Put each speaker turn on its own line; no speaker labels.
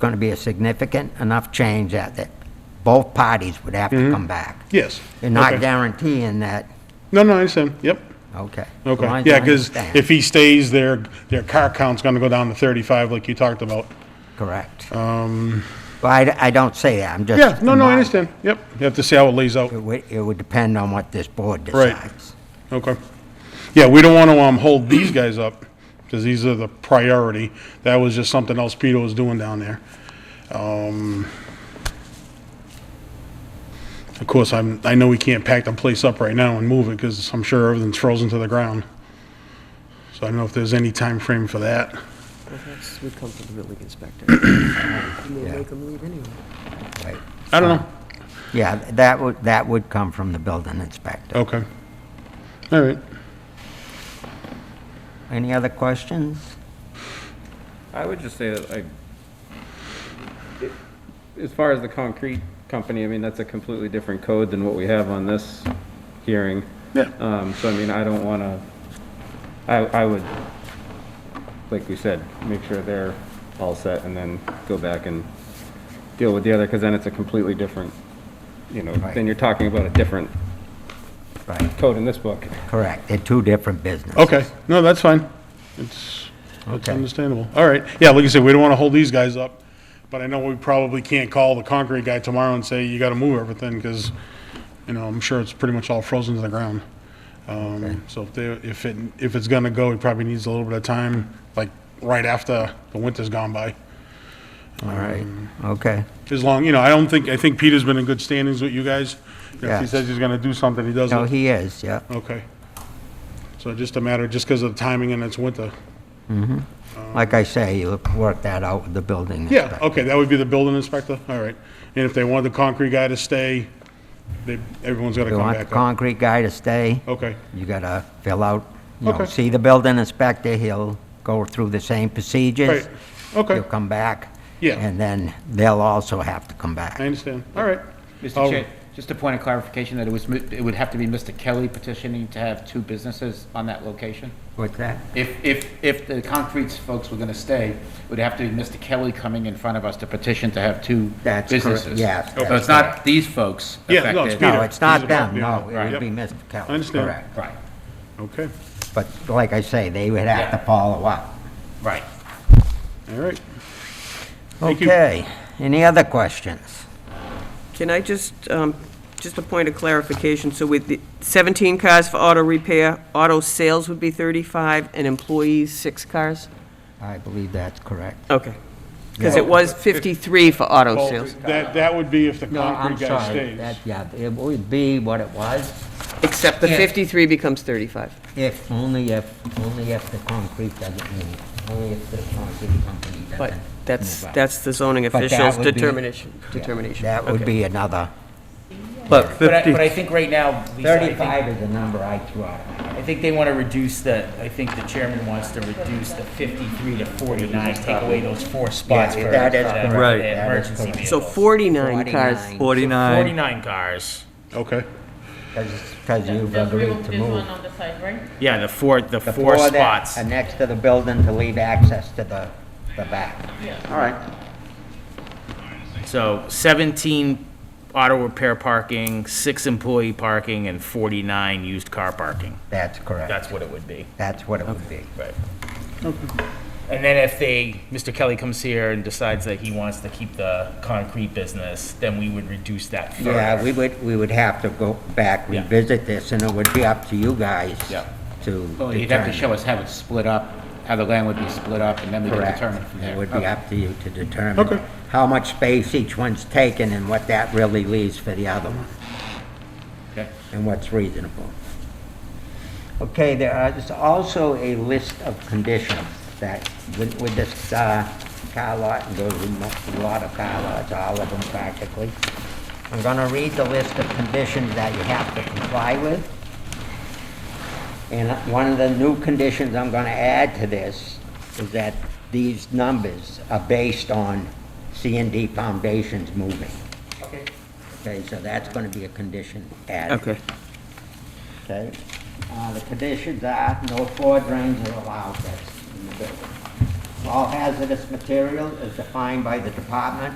going to be a significant enough change that, that both parties would have to come back.
Yes.
You're not
Mm-hmm. Okay.
guaranteeing that,
No, no, I understand, yep,
okay. as long
okay.
as I
Yeah, because
understand.
if he stays there, their car count's gonna go down to thirty-five like you talked about.
Correct. Um. Well, I, d- I don't say that, I'm just.
Yeah, no, no, I
my-
understand, yep, you have to see how it lays out,
It would, it would depend on what this board
Right.
decides.
okay. Yeah, we don't wanna, um, hold these guys up, because these are the priority, that was just something else Peter was doing down there. Um, Of course, I'm, I know we can't pack the place up right now and move it, because I'm sure everything's frozen to the ground. So I don't know if there's any time frame for that.
Perhaps would come from the building inspector. And
Yeah.
they make them leave anyway.
Right.
I don't know.
Yeah, that would, that would come from the building inspector.
Okay. All right.
Any other questions?
I would just say that, like, it- as far as the concrete company, I mean, that's a completely different code than what we have on this hearing.
Yeah.
Um, so I mean, I don't wanna, I, I would, like we said, make sure they're all set and then go back and deal with the other, cause then it's a completely different, you know,
Right.
then you're talking about a different
Right,
code in this book.
correct, they're two different businesses.
Okay. No, that's fine. It's, it's
Okay.
understandable. All right. Yeah, like you said, we don't want to hold these guys up, but I know we probably can't call the concrete guy tomorrow and say, you got to move everything, because, you know, I'm sure it's pretty much all frozen to the ground. Um, so if they, if it, if it's gonna go, it probably needs a little bit of time, like, right after the winter's gone by.
All right, okay,
As long, you know, I don't think, I think Peter's been in good standings with you guys. If he
Yes.
says he's gonna do something, he does it.
no, he is, yeah,
Okay. So just a matter, just because of the timing and it's winter?
like I say, you work that out with the building
Yeah,
inspector.
okay, that would be the building inspector, all right. And if they want the concrete guy to stay, they, everyone's got to
You
come
want the
back up.
concrete guy to stay,
Okay,
you gotta fill out, you know,
Okay.
see the building inspector, he'll go through the same procedures.
right, okay,
He'll come back.
Yeah.
And then they'll also have to come
I
back.
understand, all right.
Mr.
Oh.
Chair, just a point of clarification, that it was, mi- it would have to be Mr. Kelly petitioning to have two businesses on that location?
What's that?
If, if, if the concrete folks were going to stay, it would have to be Mr. Kelly coming in front of us to petition to have two
That's correct,
businesses?
yes,
So it's not these folks
Yeah, no, it's
affected?
Peter.
No, it's not
He's about-
them,
yeah,
no, it
right.
would be
Yep.
Mr. Kelly.
I understand.
correct.
Right,
Okay,
But like I say, they would have to follow up.
right.
all right. Thank you.
Okay, any other questions?
Can I just, um, just a point of clarification, so with the 17 cars for auto repair, auto sales would be 35, and employees, six cars?
I believe that's correct.
Okay. Because it was 53 for auto
Well,
sales,
That, that would be if the
No, I'm
concrete guy
sorry,
stays.
that, yeah, it would be what it was,
except the
Yeah.
53 becomes 35.
if, only if, only if the concrete doesn't need it, only if the concrete company doesn't.
But that's,
move up.
that's the zoning
But that
official's
would be-
determination,
Yeah,
determination.
That would be another,
But, but I,
50.
but I think right now, Lisa, I think,
thirty-five is the number I threw out.
I think they want to reduce the, I think the chairman wants to reduce the fifty-three to forty-nine, take away those four spots for.
Yeah, that is
uh,
correct.
the
Right. That is
Emergency
correct.
vehicles.
So 49 cars.
49,
Forty-nine.
Forty-nine cars.
Okay,
Cause, 'cause you've
There's room-
agreed to
There's one
move.
on the side, right?
Yeah, the four, the
The
four
that
spots.
are Next to the building to leave access to the, the back.
All right. So 17 auto repair parking, six employee parking, and 49 used car parking.
That's correct.
That's what it would be.
That's what it would be.
Right. And then if they, Mr. Kelly comes here and decides that he wants to keep the concrete business, then we would reduce that further.
Yeah, we would, we would have to go back,
Yeah.
revisit this, and it would be up to you guys
Yeah.
to
Well, you'd have to show
determine.
us how it's split up, how the land would be split up, and then we can
Correct.
determine from there.
It would
Okay.
be up to you to determine.
Okay.
How much space each one's taking and what that really leaves for the other one,
Okay.
and what's reasonable. Okay, there are, there's also a list of conditions that, with, with this, uh, car lot, and there's a mo- lot of car lots, all of them practically. I'm gonna read the list of conditions that you have to comply with. And one of the new conditions I'm going to add to this is that these numbers are based on C and D foundations moving. Okay. Okay, so that's going to be a condition added.
Okay.
Okay? Uh, The conditions are no floor drains are allowed, that's in the building. All hazardous material is defined by the department